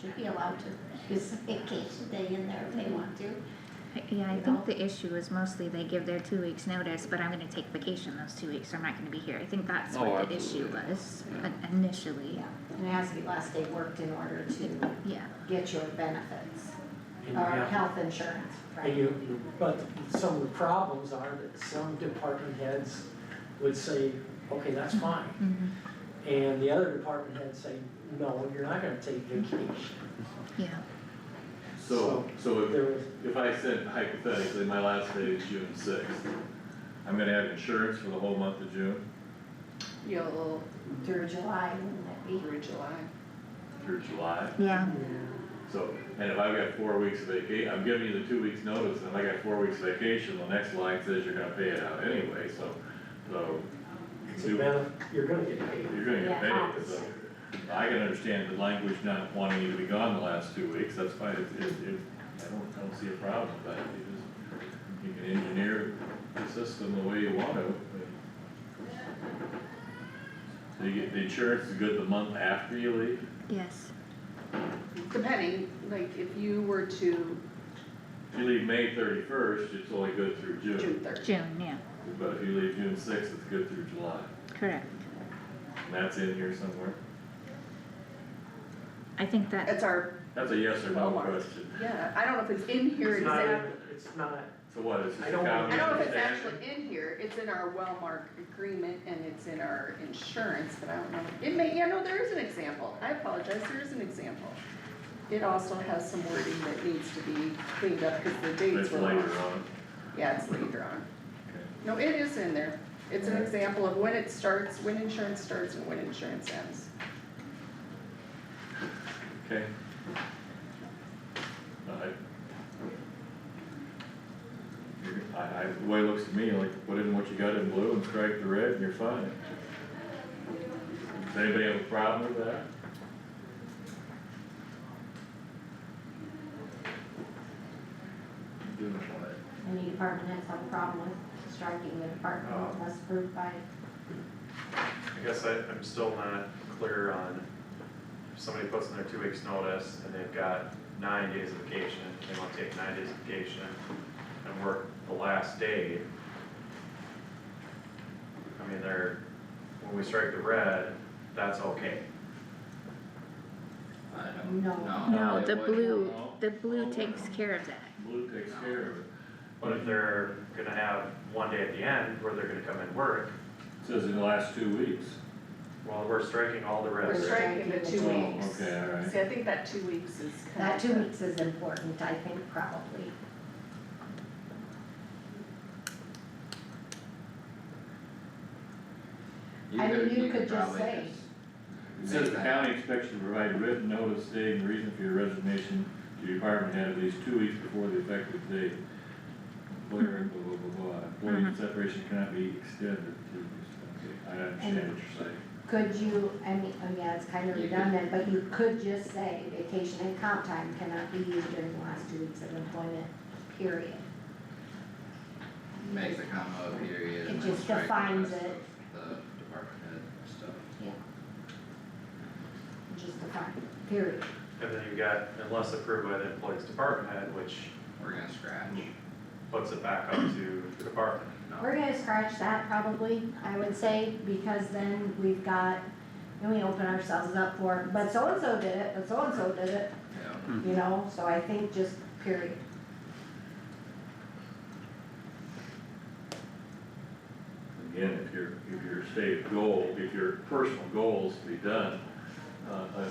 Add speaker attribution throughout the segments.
Speaker 1: should be allowed to use vacation day in there if they want to.
Speaker 2: Yeah, I
Speaker 1: You know?
Speaker 2: think the issue is mostly they give their two weeks notice, but I'm gonna take vacation those two weeks, so I'm not gonna be here. I think that's
Speaker 3: Oh,
Speaker 2: what the issue
Speaker 3: absolutely.
Speaker 2: was
Speaker 3: Yeah.
Speaker 2: in- initially,
Speaker 1: Yeah, and it has to be last day worked in order to
Speaker 2: yeah.
Speaker 1: get your benefits
Speaker 4: And you
Speaker 1: or
Speaker 4: have-
Speaker 1: health insurance,
Speaker 4: and
Speaker 1: right?
Speaker 4: you, you- but some of the problems are that some department heads would say, okay, that's fine.
Speaker 2: Mhm.
Speaker 4: And the other department heads say, no, you're not gonna take vacation.
Speaker 2: Yeah,
Speaker 5: So, so if,
Speaker 4: There was,
Speaker 5: if I said hypothetically, my last day is June sixth, I'm gonna have insurance for the whole month of June
Speaker 6: You'll,
Speaker 1: Through July, wouldn't that be?
Speaker 6: through July.
Speaker 5: through July,
Speaker 2: yeah,
Speaker 5: so, and if I've got four weeks of vaca, I'm giving you the two weeks notice, and if I got four weeks vacation, the next line says you're gonna pay it out anyway, so, so.
Speaker 4: it's a
Speaker 5: do-
Speaker 4: benefit, you're gonna get paid.
Speaker 5: You're gonna get
Speaker 1: Yeah.
Speaker 5: paid, so, I can understand the language not wanting you to be gone the last two weeks, that's fine, it, it, it, I don't, I don't see a problem, but you just, you can engineer the system the way you want to, but. So you get, the insurance is good the month after you leave,
Speaker 2: yes,
Speaker 6: Depending, like if you were to
Speaker 5: if you leave May thirty-first, it's only good through
Speaker 6: June
Speaker 5: June,
Speaker 6: third.
Speaker 2: June, yeah,
Speaker 5: but if you leave June sixth, it's good through July,
Speaker 2: correct.
Speaker 5: and that's in here somewhere,
Speaker 2: I think that,
Speaker 6: It's our,
Speaker 5: that's a yes or no
Speaker 6: Walmart.
Speaker 5: question,
Speaker 6: yeah, I don't know if it's in here
Speaker 4: It's not-
Speaker 6: exactly.
Speaker 4: It's not,
Speaker 5: so what, is this
Speaker 4: I
Speaker 5: a
Speaker 4: don't-
Speaker 5: common
Speaker 6: I don't know if it's
Speaker 5: understanding?
Speaker 6: actually in here, it's in our Wellmark agreement and it's in our insurance, but I don't know. It may, yeah, no, there is an example, I apologize, there is an example. It also has some wording that needs to be cleaned up because the dates
Speaker 5: That's
Speaker 6: were
Speaker 5: later
Speaker 6: wrong.
Speaker 5: on,
Speaker 6: Yeah, it's later on.
Speaker 5: okay.
Speaker 6: No, it is in there. It's an example of when it starts, when insurance starts and when insurance ends.
Speaker 5: Okay. Alright. You're- I, I, the way it looks to me, like, put in what you got in blue and strike the red and you're fine. Does anybody have a problem with that? I'm Doing it right.
Speaker 1: Any department has have a problem with striking the department unless approved by,
Speaker 7: I guess I, I'm still not clear on, if somebody puts in their two weeks' notice and they've got nine days of vacation, they want to take nine days of vacation and work the last day. I mean, they're, when we strike the red, that's okay.
Speaker 3: I don't,
Speaker 1: No.
Speaker 3: no.
Speaker 2: no,
Speaker 3: it
Speaker 2: the
Speaker 3: wouldn't.
Speaker 2: blue,
Speaker 5: No.
Speaker 2: the blue takes care of that.
Speaker 5: Blue takes care of it.
Speaker 7: But if they're gonna have one day at the end where they're gonna come and work,
Speaker 5: Says in the last two weeks.
Speaker 7: well, we're striking all the
Speaker 6: We're
Speaker 7: reds.
Speaker 1: stri-
Speaker 6: striking the two
Speaker 5: Oh,
Speaker 6: weeks.
Speaker 5: Okay, alright.
Speaker 6: See, I think that two weeks is kind of.
Speaker 1: that two weeks is important, I think, probably. I mean, you could just
Speaker 3: probably
Speaker 1: say-
Speaker 5: It
Speaker 3: just
Speaker 5: says
Speaker 3: make
Speaker 5: the
Speaker 3: that-
Speaker 5: county expects you to provide written notice stating the reason for your resignation to your department head at least two weeks before the effective date. Employer, blah, blah, blah, blah, employee
Speaker 2: Mhm.
Speaker 1: Mm-hmm.
Speaker 5: separation cannot be extended to, okay, I understand what you're saying.
Speaker 1: Could you, I mean, oh, yeah, it's kind of
Speaker 5: You could-
Speaker 1: redundant, but you could just say vacation and comp time cannot be used during the last two weeks of employment, period.
Speaker 3: Make the comma a period and
Speaker 1: It
Speaker 3: then
Speaker 1: just
Speaker 3: strike the
Speaker 1: defines
Speaker 3: rest
Speaker 1: it.
Speaker 3: of the department head stuff.
Speaker 1: Just a fact, period.
Speaker 7: And then you've got unless approved by the employee's department head, which
Speaker 3: We're gonna scratch,
Speaker 7: puts it back up to the department.
Speaker 3: no,
Speaker 1: We're gonna scratch that probably, I would say, because then we've got, and we open ourselves up for, but so-and-so did it, but so-and-so did it,
Speaker 3: yeah.
Speaker 2: Hmm.
Speaker 1: you know, so I think just period.
Speaker 5: Again, if your, if your stated goal, if your personal goal is to be done, uh, uh,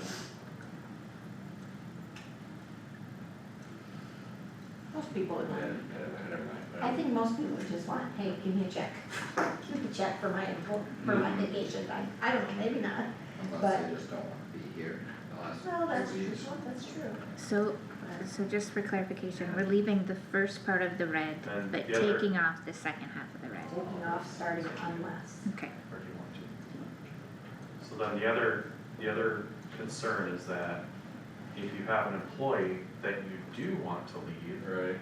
Speaker 1: Most people would
Speaker 5: yeah,
Speaker 1: want,
Speaker 5: yeah, never mind.
Speaker 1: I think most people would just want, hey, give me a check, give me a check for my, empl- for my vacation, I, I don't know, maybe not.
Speaker 3: Unless
Speaker 1: But-
Speaker 3: they just don't wanna be here the last
Speaker 1: No, that's,
Speaker 3: two weeks.
Speaker 1: that's true.
Speaker 2: So, so just for clarification, we're leaving the first part of the red,
Speaker 7: And
Speaker 2: but
Speaker 7: the other-
Speaker 2: taking off the second half of the red,
Speaker 1: Taking off starting unless.
Speaker 2: okay.
Speaker 7: or do you want to? So then the other, the other concern is that if you have an employee that you do want to leave
Speaker 5: Right,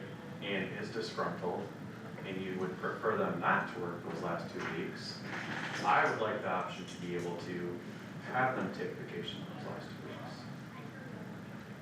Speaker 7: and is disgruntled, and you would prefer them not to work those last two weeks, I would like the option to be able to have them take vacation those last two